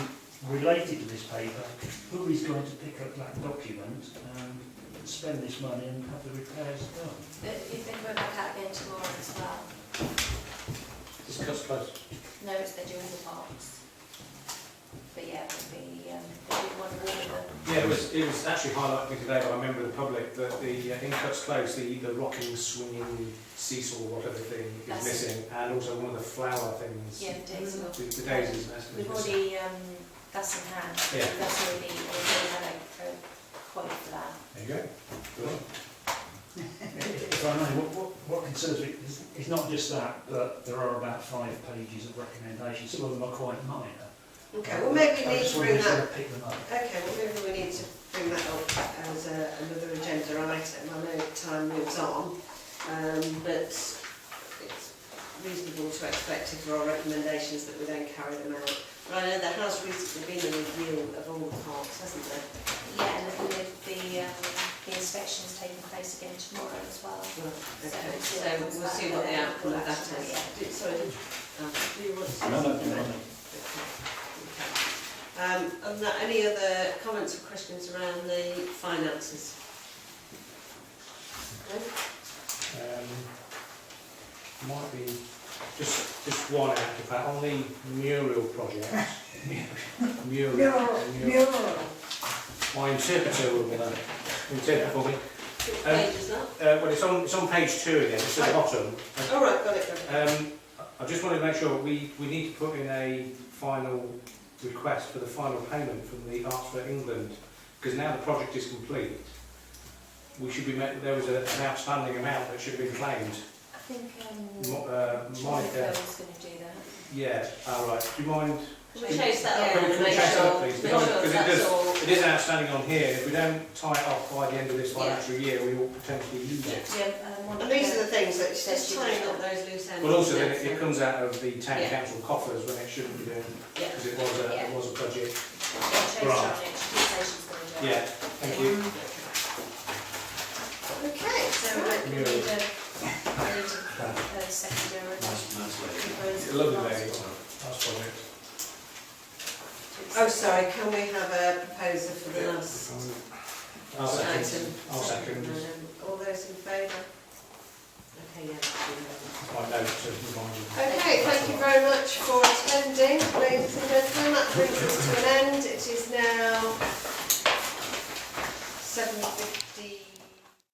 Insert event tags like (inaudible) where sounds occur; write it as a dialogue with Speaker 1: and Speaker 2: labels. Speaker 1: related to this paper, who is going to pick up that document and spend this money and have the repairs done?
Speaker 2: But you've been going back out again tomorrow as well.
Speaker 3: It's cost plus.
Speaker 2: No, it's they're doing the parks. But yeah, it'll be, um, there'll be one wall
Speaker 3: Yeah, it was, it was actually highlighted to me today by a member of the public that the, uh, in cuts close, the, the rocking, swinging seesaw, whatever thing is
Speaker 2: That's
Speaker 3: missing, and also one of the flower things.
Speaker 2: yeah, days will.
Speaker 3: The, the daisies, that's
Speaker 2: We've
Speaker 3: missing.
Speaker 2: already, um, that's in hand.
Speaker 3: Yeah.
Speaker 2: That's already, already had a quote for that.
Speaker 3: There you go. Good on.
Speaker 1: If I may, what, what- what concerns me is, is not just that, but there are about five pages of recommendations, some of them are quite minor.
Speaker 4: Okay, well maybe
Speaker 1: I
Speaker 4: we need
Speaker 1: just
Speaker 4: to
Speaker 1: wonder
Speaker 4: bring
Speaker 1: if
Speaker 4: that,
Speaker 1: they'll pick them up.
Speaker 4: okay, well maybe we need to bring that up as a, another agenda item, I know time moves on, um, but it's reasonable to expect if there are recommendations that we then carry them out. But I know there has recently been a review of all the parks, hasn't there?
Speaker 2: Yeah, and the, the, um, the inspection's taking place again tomorrow as well.
Speaker 4: Well, Okay,
Speaker 2: So,
Speaker 4: so
Speaker 2: yeah,
Speaker 4: we'll see what the outcome of that is.
Speaker 2: Yeah.
Speaker 4: Do- Sorry, um, do you want to say
Speaker 5: No, no,
Speaker 4: something?
Speaker 5: no, no.
Speaker 4: Okay. Um, and that, any other comments or questions around the finances? No?
Speaker 3: Um, might be just just one out of that on the mural
Speaker 2: (laughs)
Speaker 3: project. mural, mural. My interpreter will uh, interpret for me.
Speaker 4: Which
Speaker 3: Um,
Speaker 4: page is that?
Speaker 3: Uh, well, it's on it's on page two again. It's at the bottom.
Speaker 4: All right, got it, got it.
Speaker 3: Um, I just wanted to make sure we we need to put in a final request for the final payment from the Arts for England because now the project is complete. We should be met, there was a, an outstanding amount that should have been claimed.
Speaker 2: I think, um,
Speaker 3: Mo- uh,
Speaker 2: Monica
Speaker 3: Monica,
Speaker 2: was gonna do that.
Speaker 3: yeah, all right. Do you mind?
Speaker 4: Can we chase that
Speaker 3: Can
Speaker 4: up
Speaker 3: we-
Speaker 4: and
Speaker 3: can we
Speaker 4: make
Speaker 3: chase that up,
Speaker 4: sure, make
Speaker 3: please?
Speaker 4: sure
Speaker 3: Because- because it
Speaker 4: that's
Speaker 3: does-
Speaker 4: all?
Speaker 3: It is outstanding on here. If we don't tie it off by the end of this financial year, we will potentially lose it.
Speaker 2: Yeah, um,
Speaker 4: And these
Speaker 2: Monica,
Speaker 4: are the things that, it's
Speaker 2: Just
Speaker 4: just tying up
Speaker 2: do
Speaker 4: those loose ends.
Speaker 3: But also, then
Speaker 4: isn't
Speaker 3: it, it comes out of the town
Speaker 4: Yeah.
Speaker 3: council coffers when it shouldn't be doing
Speaker 4: Yeah.
Speaker 3: because it was a it
Speaker 2: Yeah.
Speaker 3: was a
Speaker 2: yeah,
Speaker 3: budget.
Speaker 2: Tracy
Speaker 3: Right.
Speaker 2: on it, she says she's gonna do it.
Speaker 3: Yeah. Thank you.
Speaker 4: Okay,
Speaker 2: So,
Speaker 4: so,
Speaker 2: I
Speaker 4: right,
Speaker 2: need a, I need a, a secondary.
Speaker 5: Nice, nice lady.
Speaker 2: proposal.
Speaker 3: Lovely lady. That's what it.
Speaker 4: oh, sorry, can we have a proposer for the last
Speaker 3: I'll second.
Speaker 4: item?
Speaker 3: I'll second.
Speaker 4: Um, All those in favour? Okay, yeah. that's unanimous.
Speaker 3: My note to remind you.
Speaker 4: Okay, thank you very much for attending, ladies and gentlemen, that brings us to an end. It is now